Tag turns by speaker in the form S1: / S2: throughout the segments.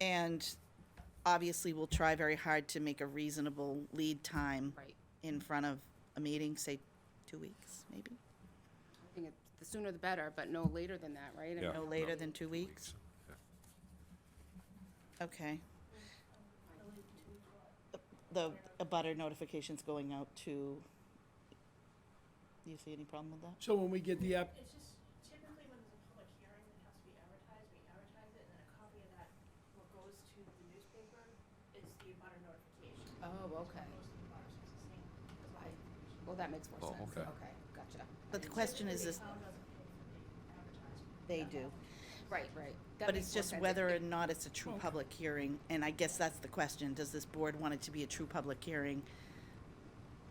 S1: And obviously, we'll try very hard to make a reasonable lead time
S2: Right.
S1: in front of a meeting, say, two weeks, maybe?
S2: I think it- the sooner the better, but no later than that, right? I
S3: Yeah.
S1: No
S2: mean,
S1: later than two weeks? Okay. The, a butter notification's going out to, do you see any problem with that?
S4: So when we get the app,
S5: It's just typically when there's a public hearing that has to be advertised, we advertise it, and then a copy of that, what goes to the newspaper is the abutter notification.
S2: Oh, okay.
S5: Most of the abutters use the same.
S2: Well, that makes more
S3: Oh,
S2: sense.
S3: okay.
S2: Okay, gotcha.
S1: But the question is, is,
S5: Town doesn't pay for the advertisement.
S1: they do.
S2: Right, right. That
S1: But
S2: makes
S1: it's
S2: more
S1: just
S2: sense.
S1: whether or
S2: It-
S1: not it's a true public hearing, and I guess that's the question, does this board want it to be a true public hearing?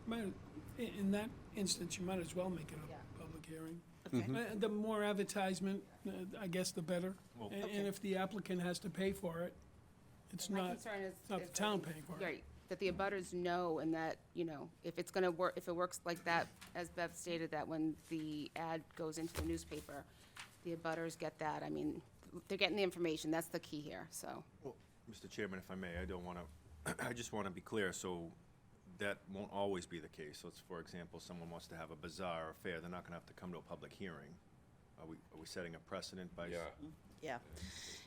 S4: might- i- in that instance, you might as well make it
S2: Yeah.
S4: a public hearing.
S1: Okay.
S4: Uh, The more advertisement, uh, I guess, the better. A- And if the applicant has to pay for it, it's
S2: My
S4: not,
S2: concern is.
S4: it's not the
S2: is
S4: town
S2: that-
S4: paying for it.
S2: Right, that the abutters know and that, you know, if it's gonna work, if it works like that, as Bev stated, that when the ad goes into the newspaper, the abutters get that. I mean, they're getting the information. That's the key here, so.
S3: Well, Mr. Chairman, if I may, I don't want to, I just want to be clear, so that won't always be the case. Let's, for example, someone wants to have a bazaar or fair, they're not going to have to come to a public hearing. Are we, are we setting a precedent by? s-
S2: Mm-hmm.
S1: Yeah.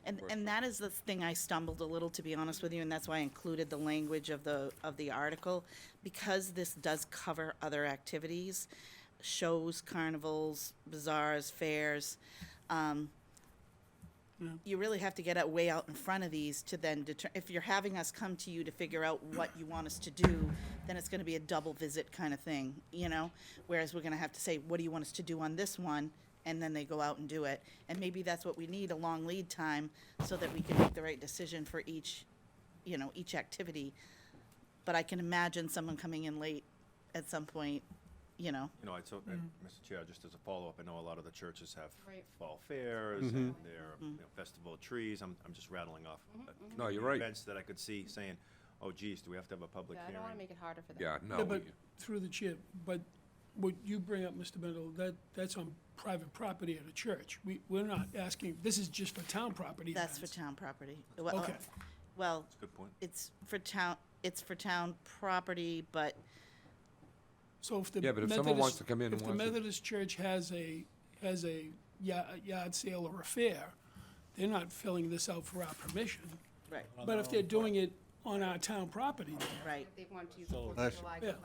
S1: And, and that is the thing I stumbled a little, to be honest with you, and that's why I included the language of the, of the article. Because this does cover other activities, shows, carnivals, bazaars, fairs, um, you really have to get out way out in front of these to then deter, if you're having us come to you to figure out what you want us to do, then it's gonna be a double visit kind of thing, you know? Whereas we're gonna have to say, what do you want us to do on this one? And then they go out and do it. And maybe that's what we need, a long lead time, so that we can make the right decision for each, you know, each activity. But I can imagine someone coming in late at some point, you know?
S3: You know, I told,
S2: Mm-hmm.
S3: Mr. Chair, just as a follow-up, I know a lot of the churches have fall fairs
S6: Mm-hmm.
S3: and their
S2: Mm-hmm.
S3: you know, festival of trees. I'm, I'm just rattling off. uh,
S6: No, you're right.
S3: Events that I could see saying, oh geez, do we have to have a public
S2: Yeah, I
S3: hearing?
S2: don't wanna make it harder for them.
S6: Yeah, no,
S4: Yeah, But
S6: we-
S4: through the chair, but what you bring up, Mr. Mendel, that, that's on private property at a church. We, we're not asking, this is just for town property.
S1: That's for
S4: events.
S1: town property. Well, uh,
S4: Okay.
S1: Well,
S3: Good point.
S1: it's for town, it's for town property, but
S4: So if the
S6: Yeah, but if someone
S4: Methodist-
S6: wants to come in and
S4: If the
S6: wants to-
S4: Methodist Church has a, has a ya- a yard sale or a fair, they're not filling this out for our permission.
S1: Right,
S4: But if they're doing it on our town property, then
S1: right.
S2: If they want to use the Fourth of July question.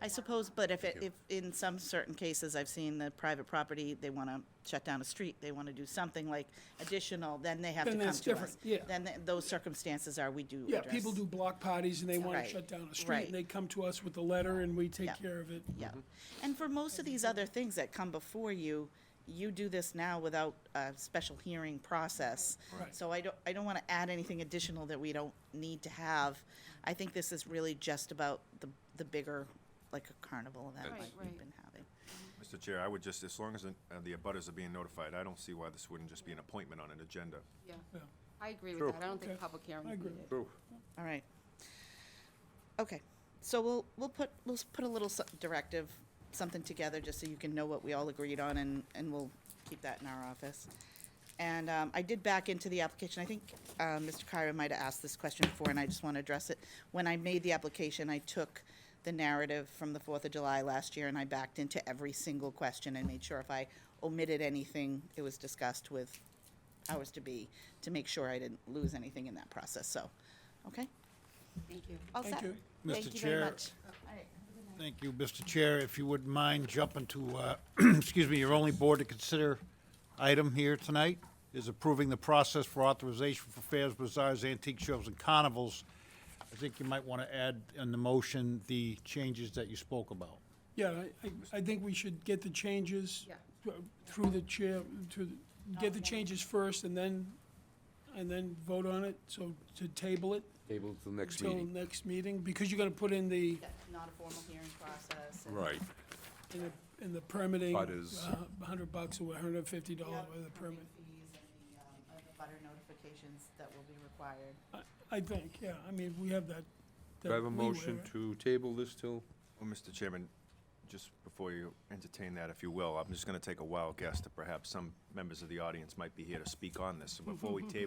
S1: I suppose, but if, it- if, in some certain cases, I've seen the private property, they want to shut down a street, they want to do something like additional, then they have to
S4: Then
S1: come to us.
S4: that's different, yeah.
S1: Then th- those circumstances are, we do
S4: Yeah, people
S1: address.
S4: do block parties and they want
S1: Right,
S4: to shut down a
S1: right.
S4: street and they come to us with a letter and we
S1: Yeah.
S4: take care of it.
S1: Yeah. And for most of these other things that come before you, you do this now without a special hearing process.
S4: Right.
S1: So I don't, I don't want to add anything additional that we don't need to have. I think this is really just about the, the bigger, like a carnival event
S2: Right,
S1: like
S2: right.
S1: we've been having.
S3: Mr. Chair, I would just, as long as the uh, the abutters are being notified, I don't see why this wouldn't just be an appointment on an agenda.
S2: Yeah,
S4: Yeah,
S2: I agree
S6: True.
S2: with that. I don't think
S4: Okay.
S2: public hearing.
S4: I agree.
S6: True.
S1: All right. Okay, so we'll, we'll put, we'll s- put a little s- directive, something together, just so you can know what we all agreed on, and, and we'll keep that in our office. And um, I did back into the application, I think uh, Mr. Kyra might have asked this question before, and I just want to address it. When I made the application, I took the narrative from the Fourth of July last year, and I backed into every single question and made sure if I omitted anything, it was discussed with powers to be, to make sure I didn't lose anything in that process, so, okay?
S2: Thank you.
S1: All
S4: Thank
S1: set.
S4: you.
S7: Mr.
S1: Oh, Thank you very
S7: Chair.
S1: much.
S7: Thank you, Mr. Chair. If you wouldn't mind jumping to, uh, excuse me, your only board to consider item here tonight is approving the process for authorization for fairs, bazaars, antique shows, and carnivals. I think you might want to add in the motion the changes that you spoke about.
S4: Yeah, I, I, I think we should get the changes
S2: Yeah.
S4: uh, through the chair, to, get the changes first and then, and then vote on it, so to table it
S6: table till next
S4: till
S6: meeting.
S4: next meeting, because you're gonna put in the,
S1: Not a formal hearing process.
S6: Right.
S4: in the, in the permitting,
S6: But is-
S4: a hundred bucks or hundred and fifty dollars Oh, with a permit.
S1: fees and the, um, butter notifications that will be required.
S4: I think, yeah, I mean, we have that.
S6: Do I have a
S4: that leeway,
S6: motion
S4: right?
S6: to table this till?
S3: Well, Mr. Chairman, just before you entertain that, if you will, I'm just going to take a wild guess that perhaps some members of the audience might be here to speak on this. So Before we table